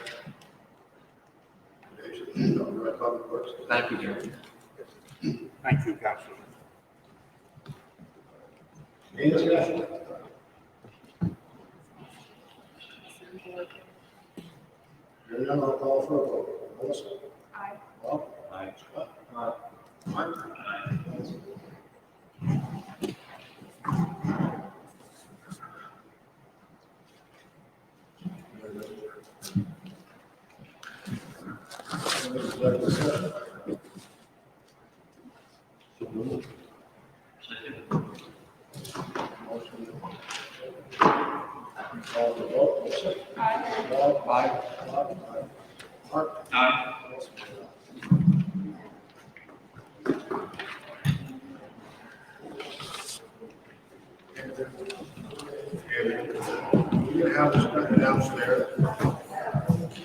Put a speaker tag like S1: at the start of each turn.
S1: Alderman Bobby Parks.
S2: Thank you, Jerry.
S3: Thank you, Councilman.
S1: Any discussion? Hearing none, I'll call for a vote. Melissa?
S4: Aye.
S1: Bob? Aye. Scott? Aye. Mark? Aye. Executive session. Motion. Call for a vote. Melissa?
S4: Aye.
S1: Bob? Aye. Bob? Aye. Mark? Aye. And we have this downstairs.